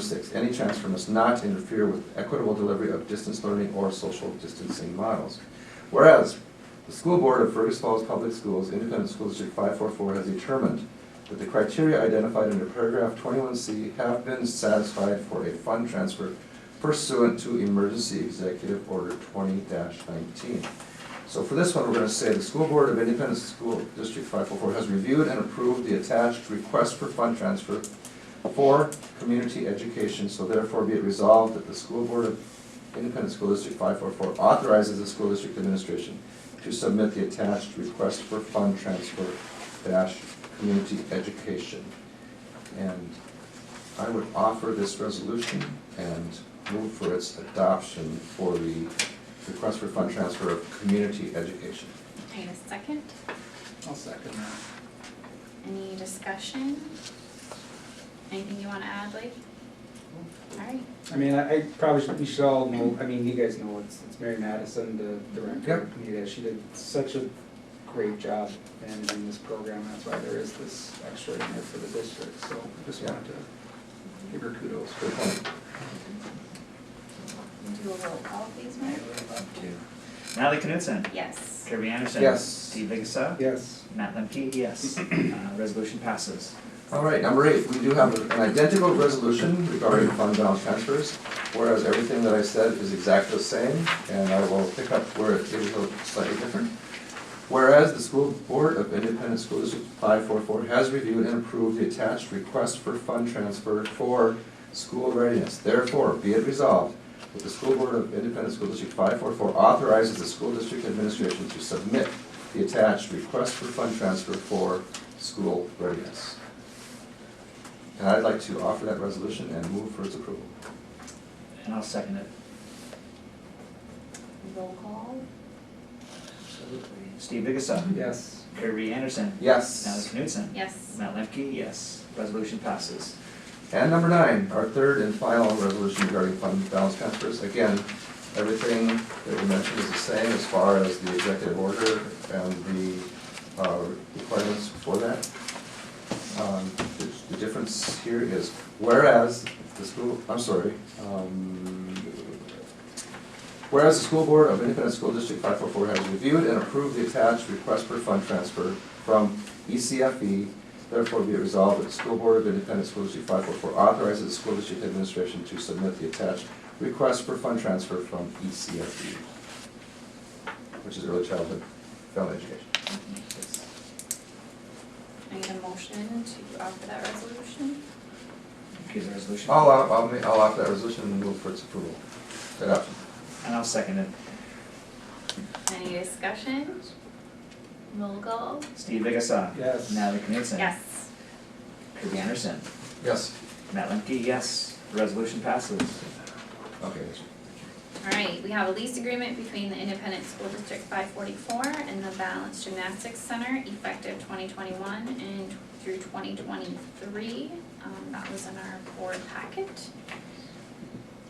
Six, any transfer must not interfere with equitable delivery of distance learning or social distancing models. Whereas, the school board of Fergus Falls Public Schools, Independent School District five four four, has determined that the criteria identified under paragraph twenty-one C have been satisfied for a fund transfer pursuant to emergency executive order twenty nineteen. So for this one, we're gonna say the school board of Independent School District five four four has reviewed and approved the attached request for fund transfer for community education, so therefore be it resolved that the school board of Independent School District five four four authorizes the school district administration to submit the attached request for fund transfer dash community education. And I would offer this resolution and move for its adoption for the request for fund transfer of community education. Okay, a second. I'll second that. Any discussion? Anything you wanna add, Blake? Alright, I mean, I I probably should, we should all know, I mean, you guys know, it's, it's Mary Madison, the director of Yep. Community Ed. She did such a great job managing this program, that's why there is this extra in there for the district, so just wanted to give her kudos for Good point. do a roll call, please, Mark. to Natalie Knudsen, Yes. Kirby Anderson. Yes. Steve Vigasa. Yes, Matt Lemke, yes. Uh, Resolution passes. All right, number eight, we do have an identical resolution regarding fund balance transfers, whereas everything that I said is exactly the same, and I will pick up where it is slightly different. Whereas the school board of Independent School District five four four has reviewed and approved the attached request for fund transfer for school readiness. Therefore, be it resolved that the school board of Independent School District five four four authorizes the school district administration to submit the attached request for fund transfer for school readiness. And I'd like to offer that resolution and move for its approval. And I'll second it. Roll call? Absolutely. Steve Vigasa. yes. Kirby Anderson. Natalie Yes. Knudsen. Yes. Matt Lemke, yes. Resolution passes. And number nine, our third and final resolution regarding fund balance transfers. Again, everything that we mentioned is the same as far as the executive order and the uh, requirements for that. Um, the- The difference here is whereas the school, I'm sorry, um, Whereas the school board of Independent School District five four four has reviewed and approved the attached request for fund transfer from E ECFE, therefore be it resolved that the school board of Independent School District five four four authorizes the school district administration to submit the attached request for fund transfer from E ECFE, E, which is early childhood family education. I need a motion to offer that resolution. Okay, the resolution. I'll, uh, I'll, I'll ma- I'll offer that resolution and move for its approval. Adoption. And I'll second it. Any discussion? Roll call? Steve Vigasa. Yes. Natalie Knudsen. Yes. Kirby Anderson. Yes. Matt Lemke, yes. Resolution passes. Okay. Alright, we have a lease agreement between the Independent School District five forty-four and the Balance Gymnastics Center effective twenty twenty-one and through twenty twenty-three. Um, that was in our board packet.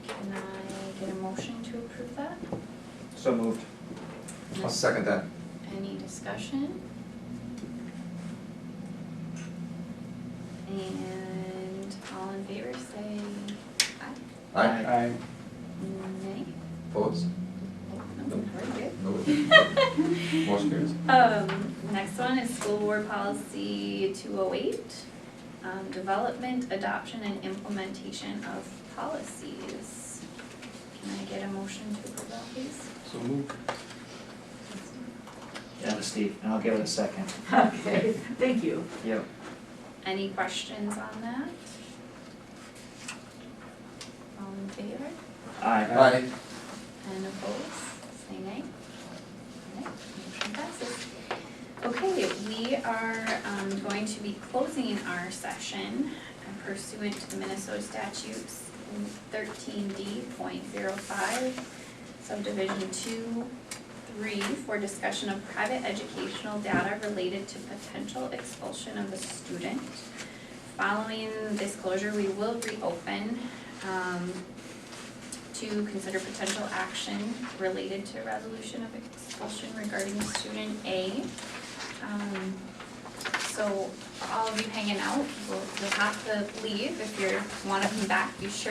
Can I get a motion to approve that? So moved. I'll second that. Any discussion? And all in favor say aye, Aye. I, nay, Opposed? oh, no, very good. No. Motion carries. Um, next one is school board policy two oh eight, um, development, adoption and implementation of policies. Can I get a motion to approve that, please? so move. That was Steve. And I'll give it a second. Okay, thank you. Yep. Any questions on that? All in favor Aye. Aye. and opposed, say nay. Nay, motion passes. Okay, we are, um, going to be closing our session pursuant to the Minnesota statutes thirteen D point zero five subdivision two, three, for discussion of private educational data related to potential expulsion of a student. Following disclosure, we will reopen, um, to consider potential action related to resolution of expulsion regarding student A. Um, so So for all of you hanging out, you'll, you'll have to leave. If you're, wanna come back, be sure